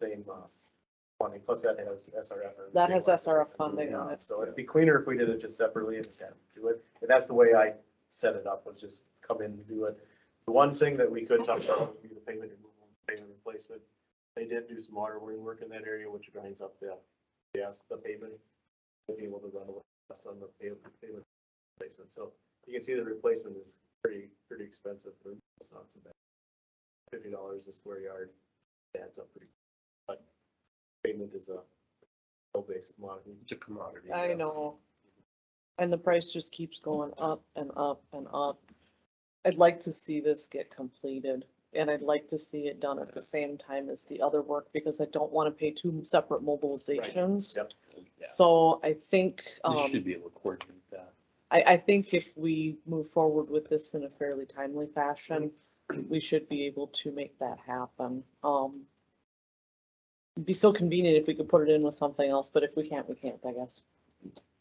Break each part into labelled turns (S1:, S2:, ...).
S1: same, uh, funding, plus that has SRF. or the
S2: That
S1: same
S2: has
S1: one.
S2: SRF funding on
S1: Yeah,
S2: it.
S1: So it'd be cleaner if we did it just separately and just had them do it, and that's the way I set it up, was just come in and do it. The one thing that we could talk about would be the pavement removal, pavement replacement. They did do some water wing work in that area, which grinds up the, yes, the pavement. To be able to run away, that's on the pavement, pavement replacement, so you can see the replacement is pretty, pretty expensive, but it's not so bad. Fifty dollars a square yard, adds up pretty, but pavement is a low-based commodity.
S3: It's a commodity.
S2: I
S3: yeah.
S2: know. And the price just keeps going up and up and up. I'd like to see this get completed and I'd like to see it done at the same time as the other work because I don't want to pay two separate mobilizations.
S1: Yep.
S3: Yeah.
S2: So I think,
S3: They
S2: um,
S3: should be able to coordinate that.
S2: I, I think if we move forward with this in a fairly timely fashion, we should be able to make that happen. Um, it'd be so convenient if we could put it in with something else, but if we can't, we can't, I guess.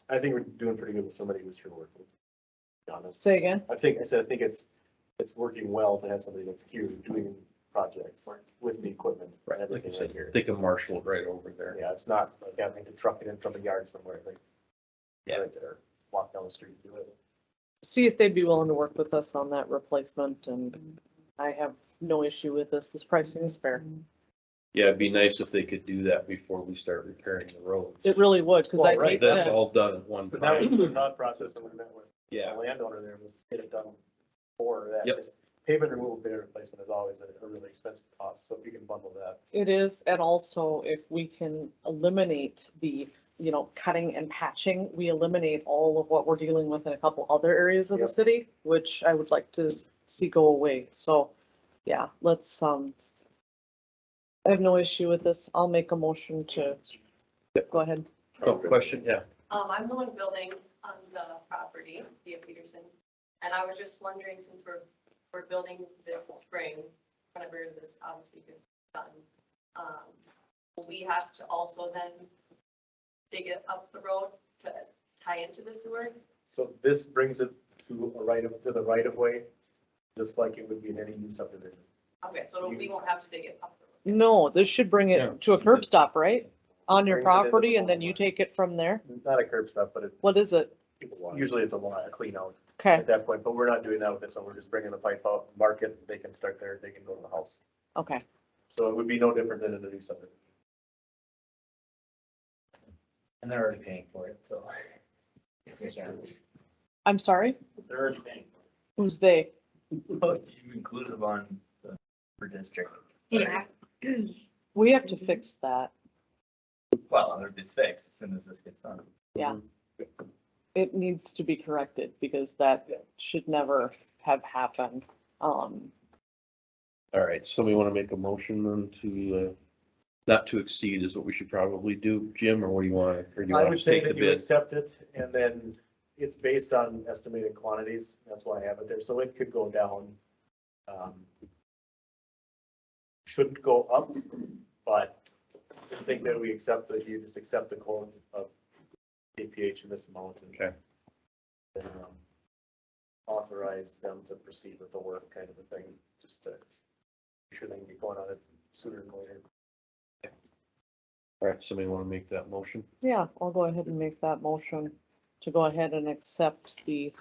S1: I think we're doing pretty good with somebody who's here working. Be Honest,
S2: Say again?
S1: I think, I said, I think it's, it's working well to have somebody that's here doing projects with the equipment. and
S3: Right, like
S1: everything
S3: you said,
S1: here.
S3: they can marshal it right over there.
S1: Yeah, it's not like having to truck it in from the yard somewhere, like.
S3: Yeah.
S1: Right there, walk down the street, and do it.
S2: see if they'd be willing to work with us on that replacement and I have no issue with this. This pricing is fair.
S3: Yeah, it'd be nice if they could do that before we start repairing the road.
S2: It really would, because I
S1: Well, right,
S2: hate
S3: Right, that's
S2: that.
S3: all done at one
S1: But that was the
S3: time.
S1: thought process when we met with the
S3: Yeah,
S1: landowner there, was get it done for that.
S3: Yep.
S1: Just Pavement removal bid replacement is always a a really expensive cost, so if you can bundle that.
S2: It is, and also if we can eliminate the, you know, cutting and patching, we eliminate all of what we're dealing with in a couple other areas of the
S1: Yep.
S2: city, which I would like to see go away. So, yeah, let's, um, I have no issue with this. I'll make a motion to, go ahead.
S3: oh, question, yeah.
S4: Um, I'm the one building on the property, Thea Peterson, and I was just wondering, since we're, we're building this spring, whenever this obviously gets done, um, will we have to also then dig it up the road to tie into the sewer?
S1: So this brings it to a right of, to the right of way, just like it would be in any new subdivision.
S4: Okay, so we won't have to dig it up the road.
S2: No, this should bring
S3: Yeah.
S2: it to a curb stop, right? On
S1: Brings it into
S2: your
S1: the
S2: property and then you
S1: boulevard.
S2: take it from there?
S1: Not a curb stop, but it,
S2: What is it?
S1: it's, usually it's a lot, a clean out
S2: Okay,
S1: at that point, but we're not doing that with this one, we're just bringing the pipe out, mark it, they can start there, they can go to the house.
S2: okay.
S1: So it would be no different than in a new subdivision.
S5: And they're already paying for it, so.
S2: I'm sorry,
S5: They're already paying.
S2: who's they?
S5: You included them on the per district.
S6: Yeah.
S2: We have to fix that.
S5: Well, it's fixed as soon as this gets done.
S2: It needs to be corrected because that should never have happened. Um,
S3: All right, somebody want to make a motion then to, uh, not to exceed is what we should probably do, Jim, or what do you want? Or do you
S1: I
S3: want
S1: would
S3: to
S1: say
S3: take the
S1: that you
S3: bid?
S1: accept it, and then it's based on estimated quantities, that's why I have it there, so it could go down. um, Shouldn't go up, but just think that we accept that you just accept the quote of DPH in this amount. and-
S3: Okay.
S1: and, um, Authorize them to proceed with the work kind of a thing, just to, make sure they can get going on it sooner than later.
S3: All right, somebody want to make that motion?
S2: yeah, I'll go ahead and make that motion to go ahead and accept the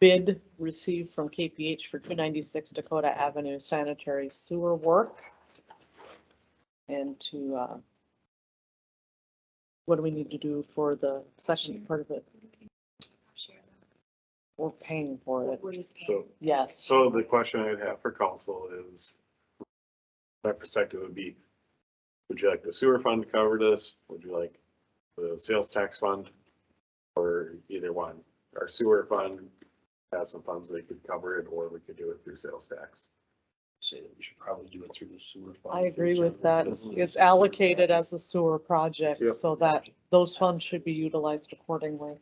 S2: bid received from KPH for two ninety-six Dakota Avenue sanitary sewer work. And to, uh, what do we need to do for the session part of it? We're paying for it,
S6: We're just.
S7: So,
S2: yes.
S7: so the question I'd have for council is, my perspective would be, would you like the sewer fund to cover this? Would you like the sales tax fund? Or either one, our sewer fund has some funds that could cover it, or we could do it through sales tax.
S3: Say that we should probably do it through the sewer fund.
S2: I agree with that. It's-
S3: Because-
S2: It's allocated as a sewer project,
S7: Yep.
S2: so that those funds should be utilized accordingly.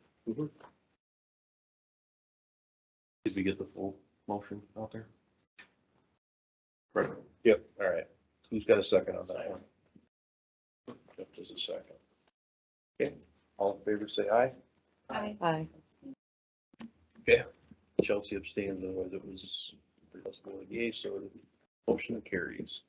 S3: Did we get the full motion out there? Right.
S7: Yep.
S3: All right. Who's got a second on that one? Yep, Just a second. Okay, all in favor, say aye.
S2: Aye.
S3: Chelsea abstains, otherwise it was, it was going yay, so the motion carries.